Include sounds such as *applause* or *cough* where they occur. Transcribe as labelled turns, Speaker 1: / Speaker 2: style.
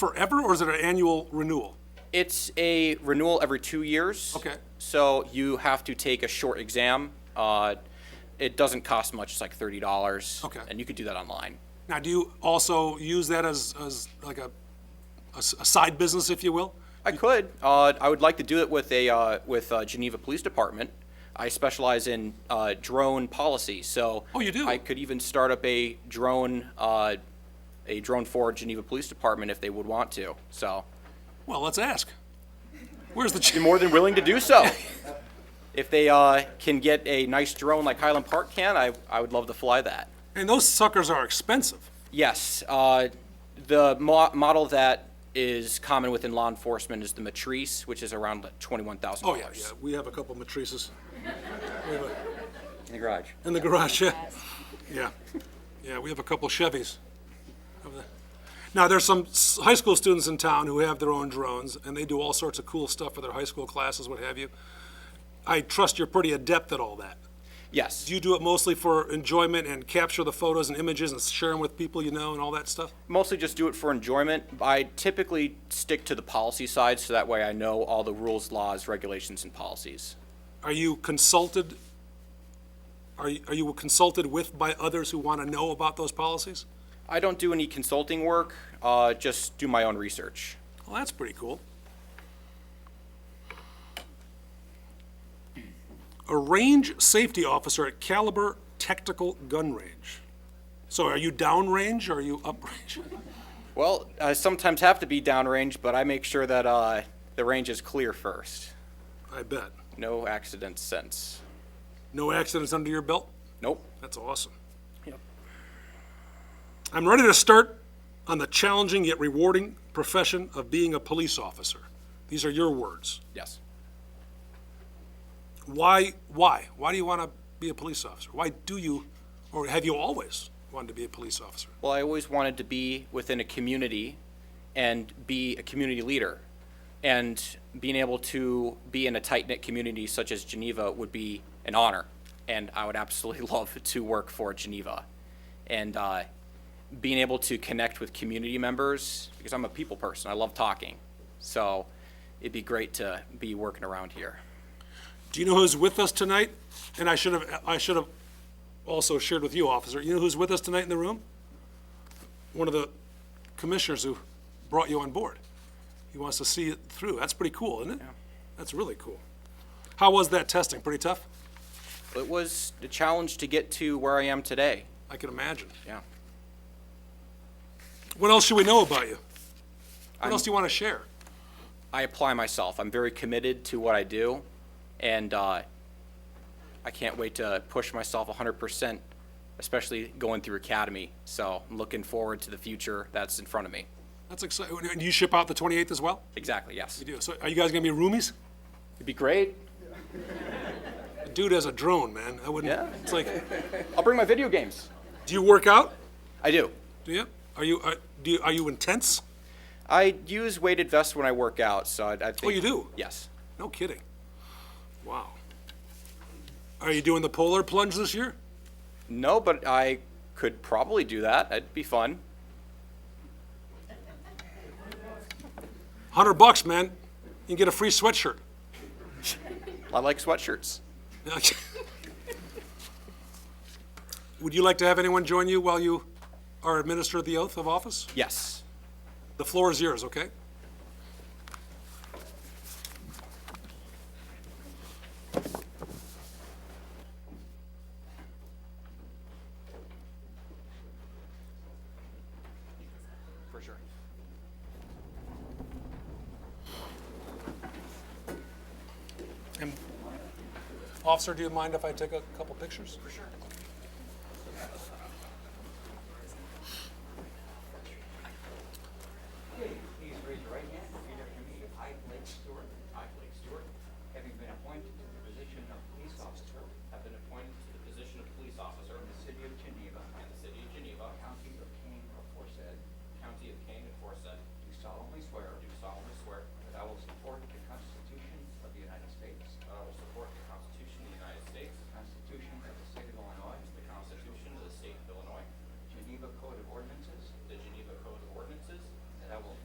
Speaker 1: forever, or is it an annual renewal?
Speaker 2: It's a renewal every two years.
Speaker 1: Okay.
Speaker 2: So you have to take a short exam. Uh, it doesn't cost much. It's like thirty dollars.
Speaker 1: Okay.
Speaker 2: And you could do that online.
Speaker 1: Now, do you also use that as, as like a, a s- a side business, if you will?
Speaker 2: I could. Uh, I would like to do it with a uh, with uh, Geneva Police Department. I specialize in uh, drone policy, so
Speaker 1: Oh, you do?
Speaker 2: I could even start up a drone uh, a drone for Geneva Police Department if they would want to. So,
Speaker 1: Well, let's ask. Where's the
Speaker 2: be
Speaker 1: chief?
Speaker 2: more than willing to do so. *laughs* if they uh, can get a nice drone like Highland Park can, I I would love to fly that.
Speaker 1: And those suckers are expensive.
Speaker 2: Yes, uh, the mo- model that is common within law enforcement is the Matrice, which is around twenty one thousand
Speaker 1: Oh,
Speaker 2: dollars.
Speaker 1: yeah, yeah, we have a couple matrices. We have a-
Speaker 2: In the garage.
Speaker 1: In the garage, yeah. Yeah, yeah, we have a couple Chevys. over there. Now, there's some s- high school students in town who have their own drones, and they do all sorts of cool stuff for their high school classes, what have you. I trust you're pretty adept at all that.
Speaker 2: Yes.
Speaker 1: Do you do it mostly for enjoyment and capture the photos and images and share them with people you know and all that stuff?
Speaker 2: mostly just do it for enjoyment. I typically stick to the policy side, so that way I know all the rules, laws, regulations, and policies.
Speaker 1: Are you consulted, are you are you consulted with by others who want to know about those policies?
Speaker 2: I don't do any consulting work, uh, just do my own research.
Speaker 1: Well, that's pretty cool. A range safety officer at Caliber Tactical Gun Range. So are you downrange or are you *laughs* uprange?
Speaker 2: Well, I sometimes have to be downrange, but I make sure that uh, the range is clear first.
Speaker 1: I bet.
Speaker 2: No accidents since.
Speaker 1: No accidents under your belt?
Speaker 2: Nope.
Speaker 1: That's awesome.
Speaker 2: Yep.
Speaker 1: I'm ready to start on the challenging yet rewarding profession of being a police officer. These are your words.
Speaker 2: Yes.
Speaker 1: Why, why? Why do you want to be a police officer? Why do you, or have you always wanted to be a police officer?
Speaker 2: Well, I always wanted to be within a community and be a community leader. And being able to be in a tight knit community such as Geneva would be an honor. And I would absolutely *laughs* love to work for Geneva. And uh, being able to connect with community members, because I'm a people person, I love talking. So it'd be great to be working around here.
Speaker 1: Do you know who's with us tonight? And I should have, I should have also shared with you, officer. You know who's with us tonight in the room? One of the commissioners who brought you on board. He wants to see it through. That's pretty cool, isn't it? That's really cool. How was that testing? Pretty tough?
Speaker 2: It was a challenge to get to where I am today.
Speaker 1: I can imagine.
Speaker 2: Yeah.
Speaker 1: What else should we know about you? What else do you want to share?
Speaker 2: I apply myself. I'm very committed to what I do, and uh, I can't wait to push myself 100%, especially going through academy. So I'm looking forward to the future that's in front of me.
Speaker 1: That's exciting. And you ship out the 28th as well?
Speaker 2: Exactly, yes.
Speaker 1: You do. So are you guys going to be roomies?
Speaker 2: It'd be great.
Speaker 1: The Dude has a drone, man. I wouldn't.
Speaker 2: Yeah.
Speaker 1: It's like,
Speaker 2: I'll bring my video games.
Speaker 1: do you work out?
Speaker 2: I do.
Speaker 1: Do you? Are you, are, do you, are you intense?
Speaker 2: I use weighted vests when I work out, so I, I think.
Speaker 1: Oh, you do?
Speaker 2: Yes.
Speaker 1: No kidding. Wow. Are you doing the polar plunge this year?
Speaker 2: No, but I could probably do that. That'd be fun.
Speaker 1: 100 bucks, man. You can get a free sweatshirt. *laughs*
Speaker 2: I like sweatshirts.
Speaker 1: Would you like to have anyone join you while you are administered the oath of office?
Speaker 2: Yes.
Speaker 1: The floor is yours, okay?
Speaker 2: For sure.
Speaker 1: And Officer, do you mind if I take a couple pictures? For sure.
Speaker 3: Please raise your right hand and repeat after me. I, Blake Stewart. I, Blake Stewart. Having been appointed to the position of police officer. Have been appointed to the position of police officer. In the city of Geneva. In the city of Geneva. County of Kane aforesaid. County of Kane aforesaid. Do solemnly swear. Do solemnly swear. That I will support the Constitution of the United States. That I will support the Constitution of the United States. The Constitution of the state of Illinois. The Constitution of the state of Illinois. Geneva Code of Ordinances. The Geneva Code of Ordinances. That I will